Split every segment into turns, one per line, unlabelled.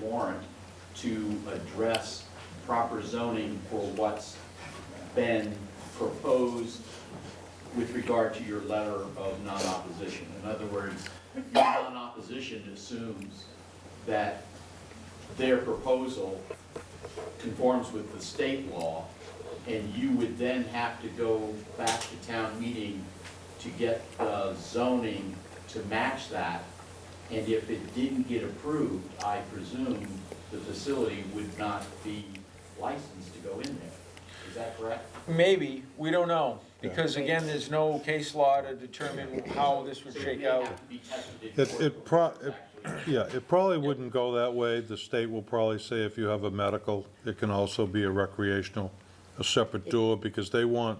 warrant to address proper zoning for what's been proposed with regard to your letter of non-opposition. In other words, your non-opposition assumes that their proposal conforms with the state law, and you would then have to go back to town meeting to get the zoning to match that. And if it didn't get approved, I presume the facility would not be licensed to go in there. Is that correct?
Maybe, we don't know, because again, there's no case law to determine how this would
So it
shake
may
out.
have to be tested in
It,
court
it pro,
before
it-
it's actually-
yeah, it probably wouldn't go that way. The state will probably say if you have a medical, it can also be a recreational, a separate door, because they want,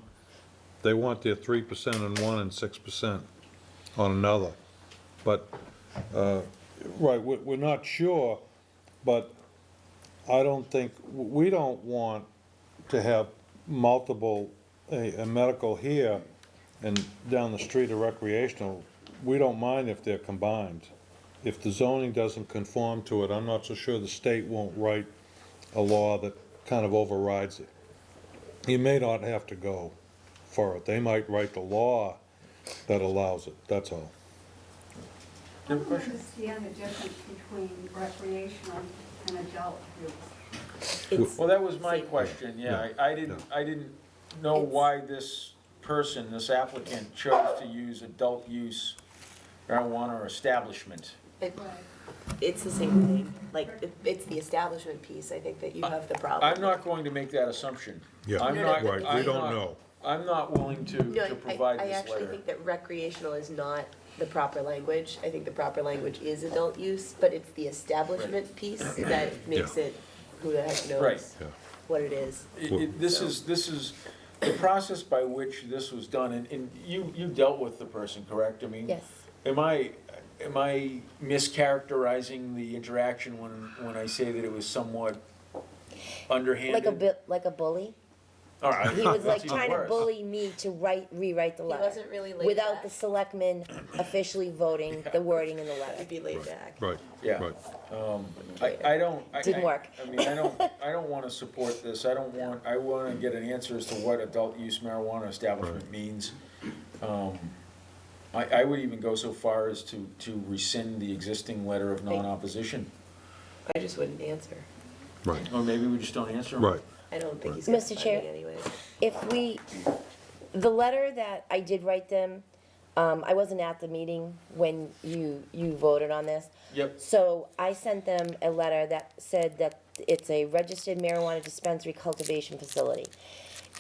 they want their three percent on one and six percent on another. But, uh, right, we're, we're not sure, but I don't think, we don't want to have multiple, a, a medical here and down the street a recreational. We don't mind if they're combined. If the zoning doesn't conform to it, I'm not so sure the state won't write a law that kind of overrides it. You may not have to go for it. They might write the law that allows it, that's all.
I don't understand the difference between recreational and adult use.
It's,
Well, that was my question, yeah, I, I didn't, I didn't know why this person, this applicant chose to use adult use marijuana establishment.
it-
Right.
it's the same thing, like, it- it's the establishment piece, I think, that you have the problem.
I'm not going to make that assumption.
Yeah,
I'm not-
right, we
I'm
don't
not-
know.
I'm not willing to,
No,
to
I-
provide
I, I
this
actually
letter.
think that recreational is not the proper language, I think the proper language is adult use, but it's the establishment piece that makes
Yeah.
it, who the heck
Right.
knows
Yeah.
what it is.
It- it- This is, this is, the process by which this was done, and, and you, you dealt with the person, correct? I mean,
Yes.
Am I, am I mischaracterizing the interaction when, when I say that it was somewhat underhanded?
Like a bit, like a bully.
All right.
He was
that's
like
even
trying to
worse.
bully me to write, rewrite the
He
letter.
wasn't really like
Without
that.
the selectmen officially voting the wording in the letter.
I'd be laid back.
Right,
Yeah.
right.
I, I don't. I-
Didn't
I-
work.
I mean, I don't, I don't wanna support this, I don't want, I wanna get an answer as to what adult use marijuana establishment means. Um, I, I would even go so far as to, to rescind the existing letter of non-opposition,
I just wouldn't answer,
Right,
or maybe we just don't answer 'em.
right.
I don't think he's gonna
Mr.
find
Chair.
me anyway.
If we, the letter that I did write them, um, I wasn't at the meeting when you, you voted on this.
Yep.
So I sent them a letter that said that it's a registered marijuana dispensary cultivation facility.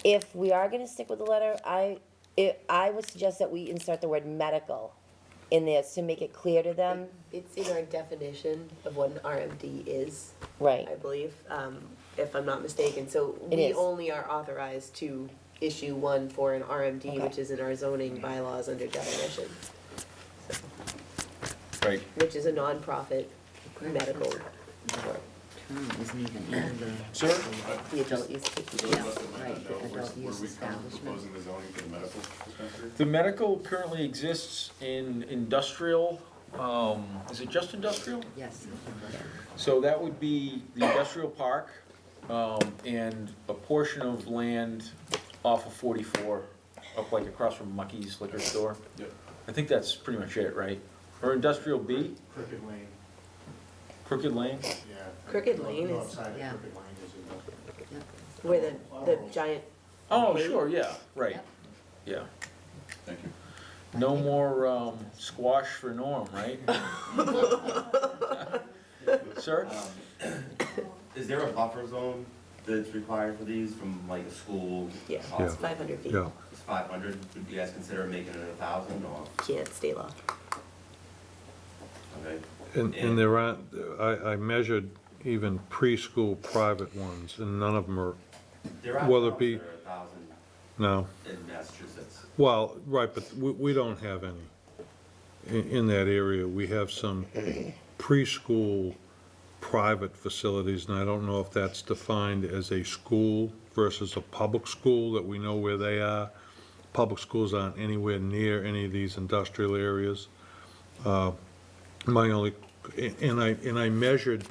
If we are gonna stick with the letter, I, it, I would suggest that we insert the word medical in there to make it clear to them,
It's in our definition of what an RMD is.
right?
I believe, um, if I'm not mistaken, so
It
we
is.
only are authorized to issue one for an RMD,
Okay.
which is in our zoning bylaws under definition,
Right,
which is a nonprofit medical,
sir,
the adult use.
Right, the adult use establishment. Were we kind of proposing the zoning for the medical dispensary?
the medical currently exists in industrial, um, is it just industrial?
Yes.
So that would be the industrial park, um, and a portion of land off of forty-four, up like across from Mucky's liquor store.
Yep.
I think that's pretty much it, right? Or industrial B,
Crooked Lane,
Crooked Lane?
yeah.
Crooked
North-
Lane
north
is-
side of
Yeah.
Crooked Lane is industrial.
Where the, the giant,
Oh, sure, yeah, right,
Yep.
yeah.
Thank you.
No more, um, squash for Norm, right? Sir?
Is there a buffer zone that's required for these from like a school?
yeah,
Yeah.
it's five hundred feet.
Yeah,
It's five hundred, would you guys consider making it a thousand or,
Can't stay law.
okay?
and, and there aren't, I, I measured even preschool private ones, and none of them are,
There are
Will it
towns
be-
that are a thousand
no.
in Massachusetts.
Well, right, but we, we don't have any in, in that area. We have some preschool private facilities, and I don't know if that's defined as a school versus a public school, that we know where they are. Public schools aren't anywhere near any of these industrial areas. Uh, My only, and I, and I measured